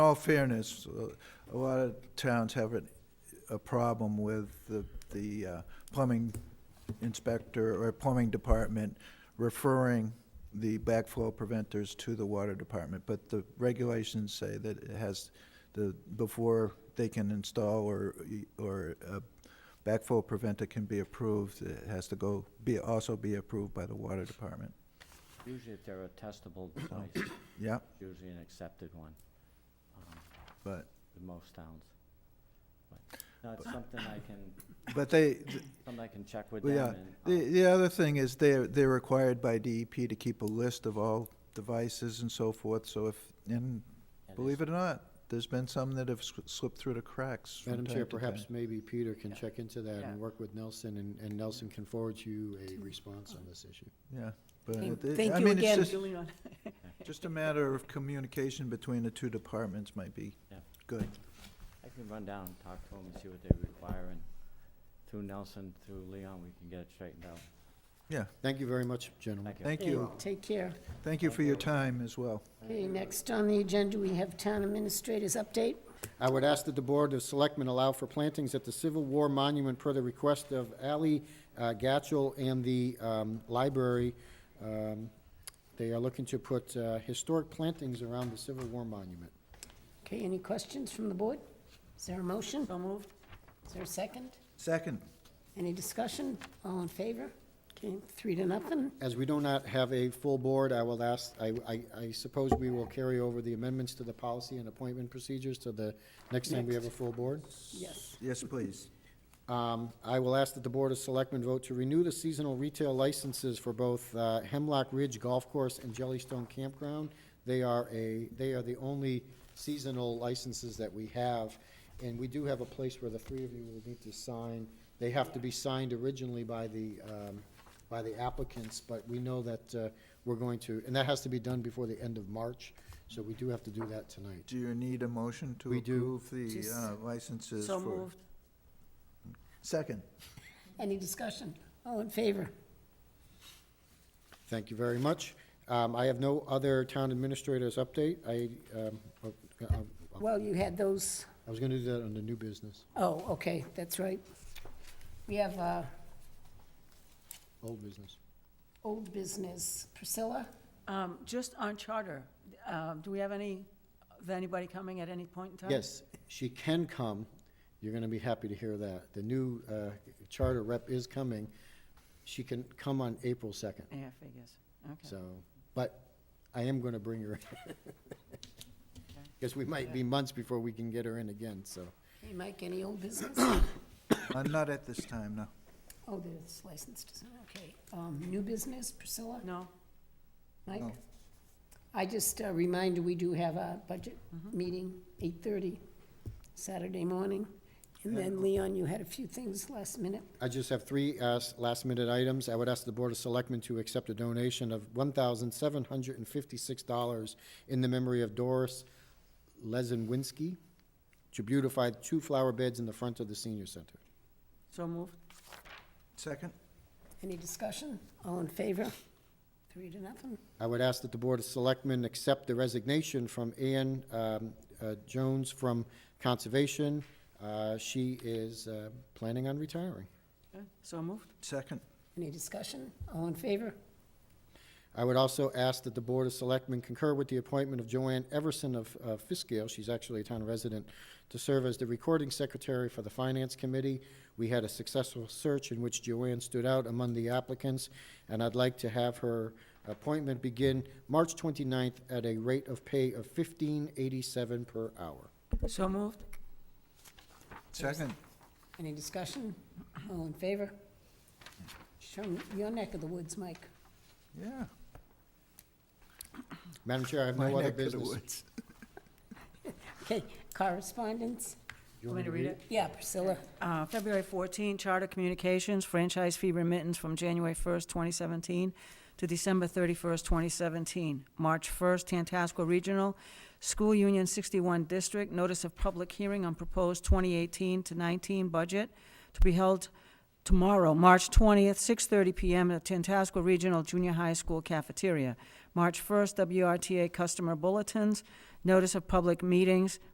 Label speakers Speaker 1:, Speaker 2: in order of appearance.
Speaker 1: all fairness, uh, a lot of towns have a, a problem with the, the uh, plumbing inspector or plumbing department referring the backflow preventers to the water department, but the regulations say that it has the, before they can install or, or a backflow preventer can be approved, it has to go, be, also be approved by the water department.
Speaker 2: Usually if they're a testable device,
Speaker 1: Yeah,
Speaker 2: usually an accepted one, um,
Speaker 1: but,
Speaker 2: in most towns. But, No, it's something I can,
Speaker 1: but they,
Speaker 2: something I can check with
Speaker 1: Well,
Speaker 2: them
Speaker 1: yeah,
Speaker 2: and, um,
Speaker 1: the, the other thing is they're, they're required by DEP to keep a list of all devices and so forth, so if, and
Speaker 2: and
Speaker 1: believe
Speaker 2: it's-
Speaker 1: it or not, there's been some that have sli- slipped through the cracks from
Speaker 3: Madam
Speaker 1: time
Speaker 3: Chair,
Speaker 1: to
Speaker 3: perhaps
Speaker 1: time.
Speaker 3: maybe Peter can
Speaker 2: Yeah.
Speaker 3: check into that
Speaker 4: Yeah.
Speaker 3: and work with Nelson, and, and Nelson can forward you a response on this issue.
Speaker 1: Yeah, but
Speaker 4: Thank
Speaker 1: it-
Speaker 4: thank
Speaker 1: I
Speaker 4: you
Speaker 1: mean,
Speaker 4: again,
Speaker 1: it's just,
Speaker 4: Julian.
Speaker 1: just a matter of communication between the two departments might be
Speaker 2: Yeah.
Speaker 1: good.
Speaker 2: I can run down and talk to them and see what they require and through Nelson, through Leon, we can get it straightened out.
Speaker 1: Yeah,
Speaker 3: Thank you very much, gentlemen.
Speaker 2: Thank you.
Speaker 1: Mm-hmm. thank you.
Speaker 5: Okay, Take care.
Speaker 1: Thank you for your time as well.
Speaker 5: Okay, next on the agenda, we have town administrators update.
Speaker 3: I would ask that the Board of Selectmen allow for plantings at the Civil War Monument per the request of Ali uh, Gatchel and the um, library. Um, They are looking to put uh, historic plantings around the Civil War Monument.
Speaker 5: Okay, any questions from the board? Is there a motion?
Speaker 4: So moved.
Speaker 5: Is there a second?
Speaker 1: Second,
Speaker 5: Any discussion? All in favor? Okay, three to nothing.
Speaker 3: As we do not have a full board, I will ask, I, I- I suppose we will carry over the amendments to the policy and appointment procedures to the next time we have a full board?
Speaker 5: Yes.
Speaker 1: yes, please.
Speaker 3: Um, I will ask that the Board of Selectmen vote to renew the seasonal retail licenses for both uh, Hemlock Ridge Golf Course and Jellystone Campground. They are a, they are the only seasonal licenses that we have, and we do have a place where the three of you will need to sign. They have to be signed originally by the, um, by the applicants, but we know that uh, we're going to, and that has to be done before the end of March, so we do have to do that tonight.
Speaker 1: Do you need a motion to
Speaker 3: We do.
Speaker 1: approve the
Speaker 5: Just-
Speaker 1: uh, licenses
Speaker 4: So
Speaker 1: for?
Speaker 4: moved.
Speaker 1: Second,
Speaker 5: Any discussion? All in favor?
Speaker 3: Thank you very much. Um, I have no other town administrators update. I, um, oh, uh, uh,
Speaker 5: Well, you had those,
Speaker 3: I was gonna do that on the new business,
Speaker 5: oh, okay, that's right. We have uh,
Speaker 3: old business.
Speaker 5: old business. Priscilla?
Speaker 4: Um, Just on charter, um, do we have any, is anybody coming at any point in time?
Speaker 3: Yes, she can come. You're gonna be happy to hear that. The new, uh, charter rep is coming. She can come on April second,
Speaker 4: Yeah, figures. Okay.
Speaker 3: so, but I am gonna bring her. Guess we might be months before we can get her in again, so.
Speaker 5: Hey, Mike, any old business?
Speaker 1: I'm Uh, not at this time, no.
Speaker 5: Oh, there's license, design, okay. Um, New business, Priscilla?
Speaker 4: No?
Speaker 5: Mike?
Speaker 1: No.
Speaker 5: I just uh, remind you, we do have a budget meeting, 8:30, Saturday morning. And then Leon, you had a few things last minute.
Speaker 3: I just have three uh, last-minute items. I would ask the Board of Selectmen to accept a donation of $1,756 in the memory of Doris Lezenwinski to beautify two flower beds in the front of the senior center.
Speaker 4: So moved?
Speaker 1: Second,
Speaker 5: Any discussion? All in favor? Three to nothing.
Speaker 3: I would ask that the Board of Selectmen accept the resignation from Ann um, uh, Jones from Conservation. Uh, She is uh, planning on retiring.
Speaker 4: Okay. So moved?
Speaker 1: second,
Speaker 5: Any discussion? All in favor?
Speaker 3: I would also ask that the Board of Selectmen concur with the appointment of Joanne Everson of of Fiskale, she's actually a town resident, to serve as the Recording Secretary for the Finance Committee. We had a successful search in which Joanne stood out among the applicants, and I'd like to have her appointment begin March 29th at a rate of pay of $15.87 per hour.
Speaker 4: So moved?
Speaker 1: second.
Speaker 5: Any discussion? All in favor? Show me your neck of the woods, Mike.
Speaker 1: Yeah.
Speaker 3: Madam Chair, I have
Speaker 1: My
Speaker 3: no other
Speaker 1: neck of the
Speaker 3: business.
Speaker 1: woods.
Speaker 5: Okay, correspondence?
Speaker 3: You
Speaker 4: Want me to read it?
Speaker 5: Yeah, Priscilla.
Speaker 4: Uh, February 14, Charter Communications, franchise fee remittance from January 1st, 2017 to December 31st, 2017. March 1st, Tantasco Regional, School Union 61 District, notice of public hearing on proposed 2018 to 19 budget to be held tomorrow, March 20th, 6:30 PM at Tantasco Regional Junior High School cafeteria. March 1st, WRTA customer bulletins, notice of public meetings,